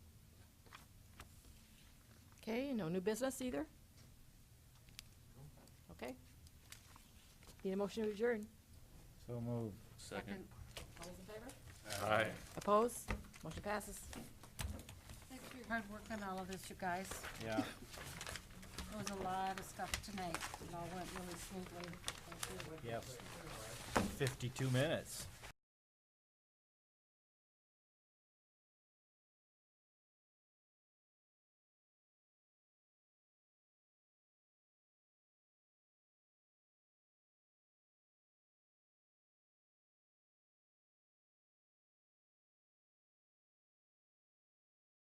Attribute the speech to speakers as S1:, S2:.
S1: Okay, no new business either? Okay. Need a motion to adjourn.
S2: So moved.
S3: Second.
S1: All those in favor?
S3: Aye.
S1: Opposed? Motion passes.
S4: Thanks for your hard work on all of this, you guys.
S2: Yeah.
S4: There was a lot of stuff tonight. It all went really smoothly. Thank you.
S2: Yep. Fifty-two minutes.